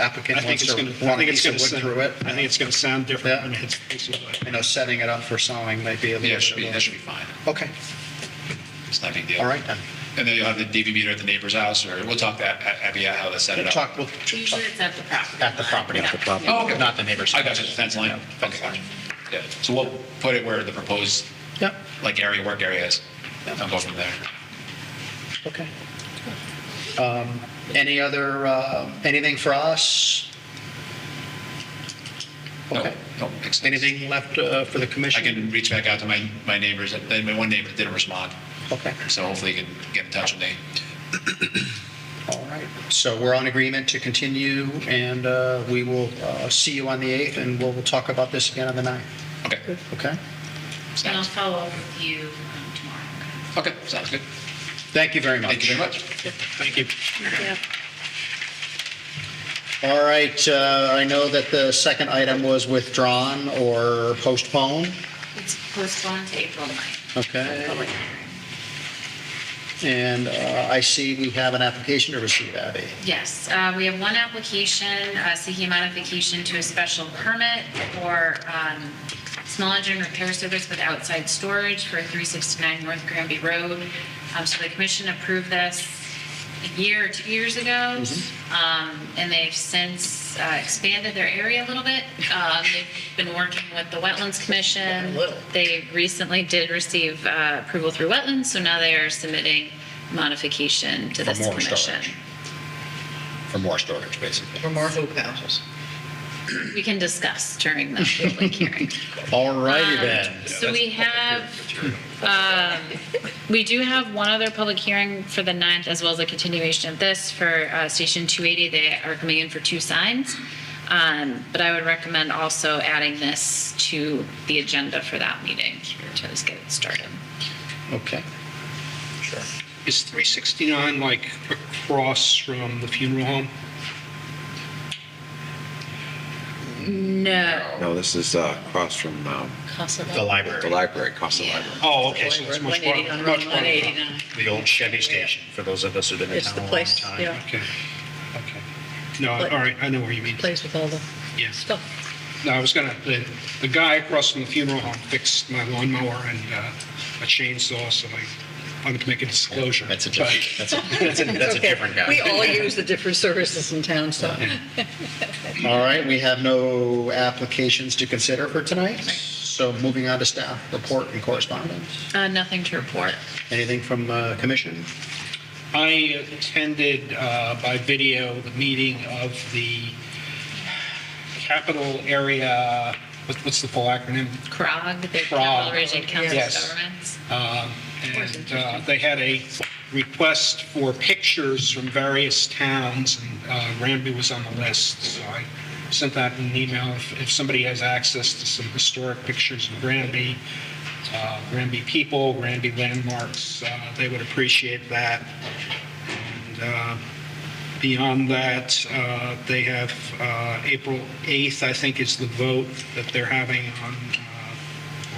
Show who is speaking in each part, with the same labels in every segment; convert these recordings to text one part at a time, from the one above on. Speaker 1: applicant
Speaker 2: I think
Speaker 1: wants
Speaker 2: it's
Speaker 1: to,
Speaker 2: going to, I
Speaker 1: want a
Speaker 2: think it's
Speaker 1: piece of
Speaker 2: going to.
Speaker 1: wood through it.
Speaker 2: I think it's going to sound different when it hits pieces.
Speaker 1: You know, setting it up for sawing might be a little.
Speaker 3: Yeah, it should be,
Speaker 1: bit
Speaker 3: that
Speaker 1: of-
Speaker 3: should be fine.
Speaker 1: Okay,
Speaker 3: It's not a big deal.
Speaker 1: all right then.
Speaker 3: And then you'll have the DV meter at the neighbor's house, or we'll talk to Ab- Abby how to set it up.
Speaker 1: Talk, we'll,
Speaker 4: Usually it's at the property.
Speaker 1: at the property.
Speaker 4: Yeah.
Speaker 3: uh, Oh, okay.
Speaker 1: Not the neighbors.
Speaker 3: I got you, the fence line, fence line. Yeah, so we'll put it where the proposed,
Speaker 1: Yep,
Speaker 3: like, area, work area is, and go from there.
Speaker 1: okay. Um, Any other, uh, anything for us?
Speaker 3: No,
Speaker 1: Okay.
Speaker 3: no, makes sense.
Speaker 1: Anything left uh, for the
Speaker 3: I
Speaker 1: commission?
Speaker 3: can reach back out to my, my neighbors, then my one neighbor that didn't respond,
Speaker 1: Okay,
Speaker 3: so hopefully you can get in touch with me.
Speaker 1: all right. So we're on agreement to continue, and uh, we will uh, see you on the 8th, and we'll we'll talk about this again on the 9th,
Speaker 3: Okay,
Speaker 1: okay?
Speaker 4: And I'll
Speaker 3: sounds,
Speaker 4: follow up with you um, tomorrow.
Speaker 3: okay, sounds good.
Speaker 1: Thank you very much.
Speaker 3: Thank you very much.
Speaker 2: Thank you.
Speaker 1: All right, uh, I know that the second item was withdrawn or postponed,
Speaker 4: It's postponed to April 9th.
Speaker 1: okay? And uh, I see we have an application to receive, Abby.
Speaker 4: Yes, uh, we have one application uh, seeking modification to a special permit for um, small engine repair service with outside storage for 369 North Granby Road. Um, So the commission approved this a year or two years ago,
Speaker 3: Mm-hmm.
Speaker 4: Um, and they've since uh, expanded their area a little bit. Um, They've been working with the Wetlands Commission. They recently did receive uh, approval through Wetlands, so now they are submitting modification to this
Speaker 3: more
Speaker 4: commission.
Speaker 3: storage. For more storage, basically.
Speaker 5: For more hoop houses.
Speaker 4: we can discuss during the public hearing. Um,
Speaker 1: All righty then.
Speaker 4: So we have, um, we do have one other public hearing for the 9th, as well as a continuation of this for uh, Station 280. They are coming in for two signs. Um, But I would recommend also adding this to the agenda for that meeting to just get it started.
Speaker 1: Okay.
Speaker 2: Is 369 like across from the funeral home?
Speaker 4: No.
Speaker 6: No, this is uh, across from um,
Speaker 5: The
Speaker 6: the library, across the library.
Speaker 2: Oh, okay, so it's much more.
Speaker 5: 180 on
Speaker 2: much
Speaker 5: Route
Speaker 2: more-
Speaker 5: 189.
Speaker 7: the old Chevy station, for those of us who've been in
Speaker 5: It's
Speaker 7: town
Speaker 5: the
Speaker 7: a long
Speaker 5: place,
Speaker 7: time.
Speaker 5: yeah,
Speaker 2: Okay, okay. No, all
Speaker 5: Like-
Speaker 2: right, I know where you mean.
Speaker 5: place with all the
Speaker 2: Yes.
Speaker 5: stuff.
Speaker 2: No, I was gonna, the, the guy across from the funeral home fixed my lawnmower and uh, a chainsaw, so I wanted to make a disclosure.
Speaker 7: That's a,
Speaker 2: But-
Speaker 7: different- that's a, that's a, that's a
Speaker 5: Okay.
Speaker 7: different guy.
Speaker 5: We all use the different services in town, so.
Speaker 1: All right, we have no applications to consider for tonight, so moving on to staff report and correspondence.
Speaker 4: Uh, Nothing to report.
Speaker 1: Anything from uh, commission?
Speaker 2: I attended uh, by video the meeting of the Capital Area, what- what's the full acronym?
Speaker 4: CROG, the Capital
Speaker 2: CROG.
Speaker 4: Region Council of
Speaker 2: Yes.
Speaker 4: Governments.
Speaker 2: And uh, they had a request for pictures from various towns, and uh, Granby was on the list. So I sent out an email, if if somebody has access to some historic pictures of Granby, uh, Granby people, Granby landmarks, uh, they would appreciate that. And uh, Beyond that, uh, they have uh, April 8th, I think, is the vote that they're having on,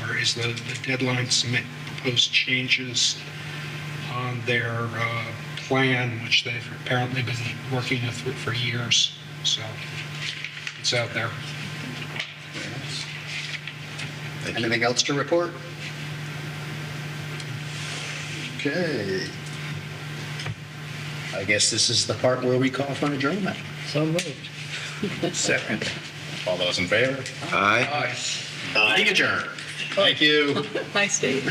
Speaker 2: uh, or is the the deadline to submit proposed changes on their uh, plan, which they've apparently been working with for years. So it's out there.
Speaker 1: Anything else to report? Okay. I guess this is the part where we call for an adjournment.
Speaker 5: So moved.
Speaker 7: Second. All those in favor?
Speaker 6: Aye.
Speaker 1: Uh, Meeting adjourned. Thank you.
Speaker 5: Nice, Dave.